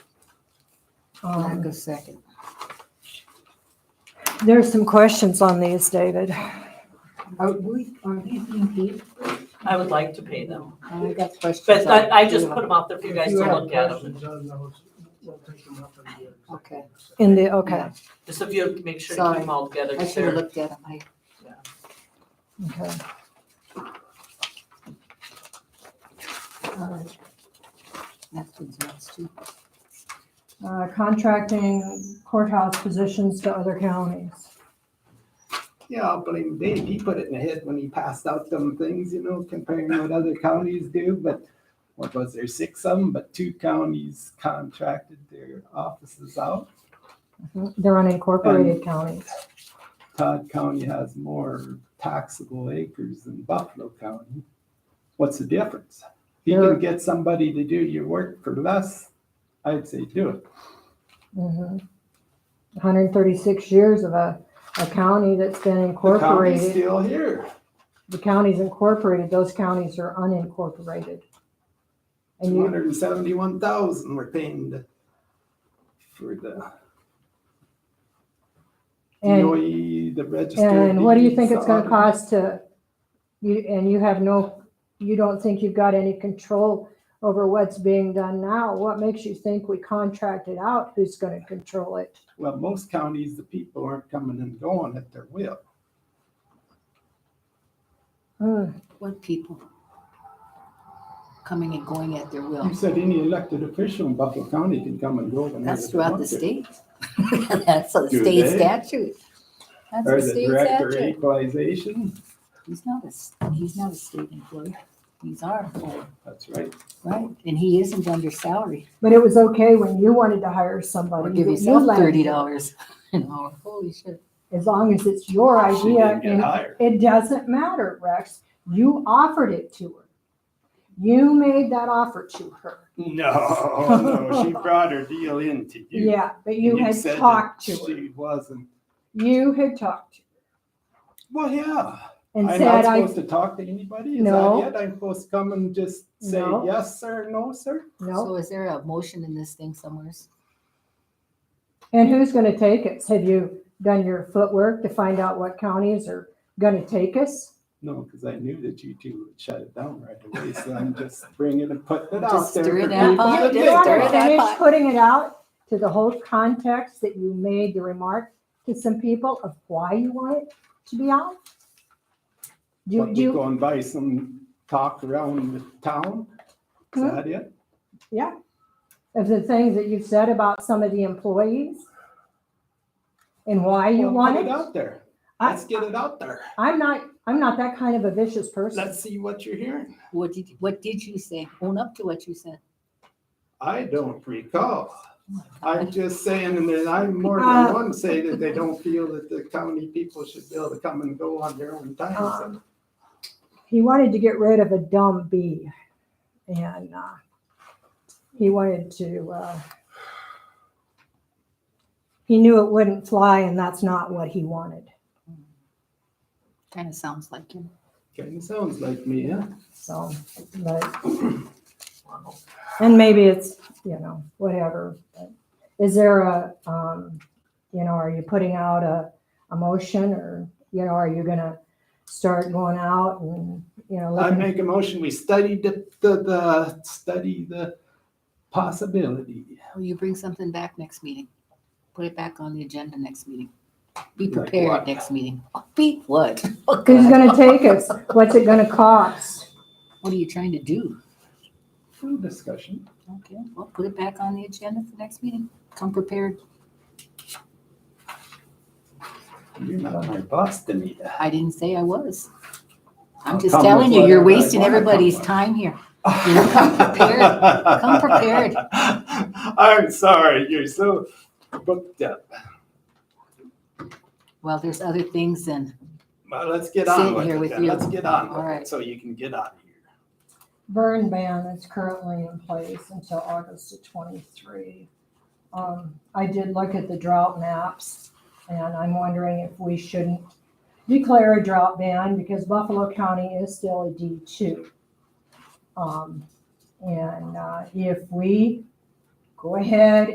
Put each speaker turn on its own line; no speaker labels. Um,
Lack of second.
There are some questions on these, David.
Are Oh, we, are these being paid?
I would like to pay them,
I got questions.
but I,
on
I
it,
just
too.
put them out there for you guys
If
to
have
look at them.
questions on those, we'll take them up in the executive
Okay.
session.
In the, okay,
Just if you make sure to keep them all together.
I should have
Sarah.
looked at them. I,
okay.
uh, that's what's next too.
Uh, Contracting courthouse positions to other counties.
Yeah, I'll blame Dave. He put it in a hit when he passed out them things, you know, comparing what other counties do, but what was there, six of them, but two counties contracted their offices out.
They're unincorporated counties.
Todd County has more taxable acres than Buffalo County. What's the difference? If you
There-
can get somebody to do your work for less, I'd say do it.
Mhm. 136 years of a, a county that's been
The county's
incorporated.
still here.
The county's incorporated, those counties are unincorporated. And
Two
you,
hundred and seventy-one thousand we're paying the- for the
and,
DOE, E, the register.
and what do you think
deeds,
it's gonna
the
cost to, you, and you have no, you don't think you've got any control over what's being done now? What makes you think we contracted out who's gonna control it?
Well, most counties, the people aren't coming and going at their will.
Hmm.
What people? Coming and going at their will.
You said any elected official in Buffalo County can come and go. whenever
That's
they
throughout
want
the
to.
state. That's a
Do
state
they?
statute. That's
Or
a
the
state
director of
statute.
equalization.
He's not a, s- he's not a state employee. He's our employee,
That's right.
right? And he isn't under salary.
But it was okay when you wanted to hire
Or
somebody.
give
that you
yourself
liked,
thirty dollars an hour. Holy shit.
As long as it's your
She
idea
didn't get
and
hired.
It doesn't matter, Rex. You offered it to her. You made that offer to her.
No, no, she brought her deal in to you.
Yeah, but you had
said that
talked to her.
She wasn't.
You had talked to
Well, yeah.
her and
I'm
said,
not
I,
supposed to talk to anybody? Is
No.
that it? I'm supposed to come and just say
No.
yes, sir, no, sir?
no.
So is there a motion in this thing somewhere?
And who's gonna take us? Have you done your footwork to find out what counties are gonna take us?
No, because I knew that you two would shut it down right away, so I'm just bringing and putting it out
Just
there.
stir
for
it up.
people
Oh,
to
You
did
you
it,
dig.
stir
wanna
it up.
finish putting it out to the whole context that you made the remark to some people of why you want it to be out? Do you, do
What, we
you?
go and buy some talk around the town? Is
Hmm?
that it?
of the things that you've said about some of the employees and why you
Well,
want
Put it
it.
out there.
I-
Let's get it out there.
I'm not, I'm not that kind of a vicious person.
Let's see what you're hearing.
What did, what did you say? Own up to what you said.
I don't recall. I'm just saying, and then I'm more
Uh,
than one say that they don't feel that the county people should be able to come and go on their own time. so.
Uh-huh.
Um, He wanted to get rid of a dumb bee and, uh, he wanted to, uh, he knew it wouldn't fly and that's not what he wanted.
Kind of sounds like him.
Kind of sounds like me, huh?
So, but, and maybe it's, you know, whatever. but Is there a, um, you know, are you putting out a, a motion or, you know, are you gonna start going out and, you know,
I
looking?
make a motion, we study the, the, the, study the possibility.
Will Oh, you bring something back next meeting? Put it back on the agenda next meeting. Be
Like
prepared
what?
next meeting. Be what? Oh,
Who's
God.
gonna take us? What's it gonna cost?
What are you trying to do?
Full discussion.
Okay, well, put it back on the agenda for next meeting. Come prepared.
You're not my boss, Danita.
I didn't say I was. I'm
I'll
just
come
telling
with
you, you're
whatever I
wasting
wanna come
everybody's
with.
time here. You know, come prepared. Come prepared.
I'm sorry, you're so booked up.
Well, there's other things and
Well, let's get
Sitting
on with
here
it
with
then.
you.
Let's get on
All
with
right.
it, so you can get out of here.
burn ban is currently in place until August of twenty-three. Um, I did look at the drought maps, and I'm wondering if we shouldn't declare a drought ban because Buffalo County is still a D two. Um, and, uh, if we go ahead